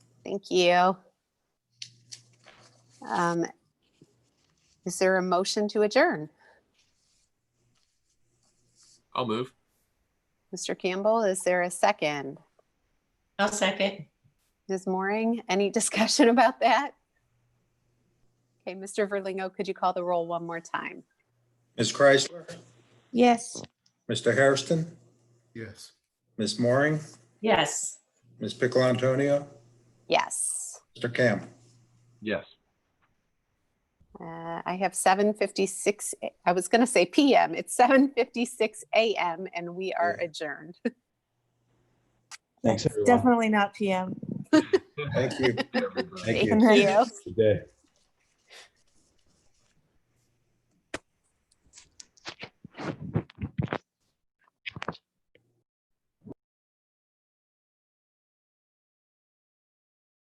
Thank you. Um, Is there a motion to adjourn? I'll move. Mr. Campbell, is there a second? I'll second. Ms. Mooring, any discussion about that? Okay, Mr. Verlingo, could you call the roll one more time? Ms. Chrysler, Yes. Mr. Hairston, Yes. Ms. Mooring, Yes. Ms. Piccolo Antonio, Yes. Mr. Campbell. Yes. Uh, I have 7:56, a- I was going to say PM, it's 7:56 AM and we are Yeah. adjourned. Thanks, Definitely not PM. Thank you. Everybody. Thank you. Thank you. Good day.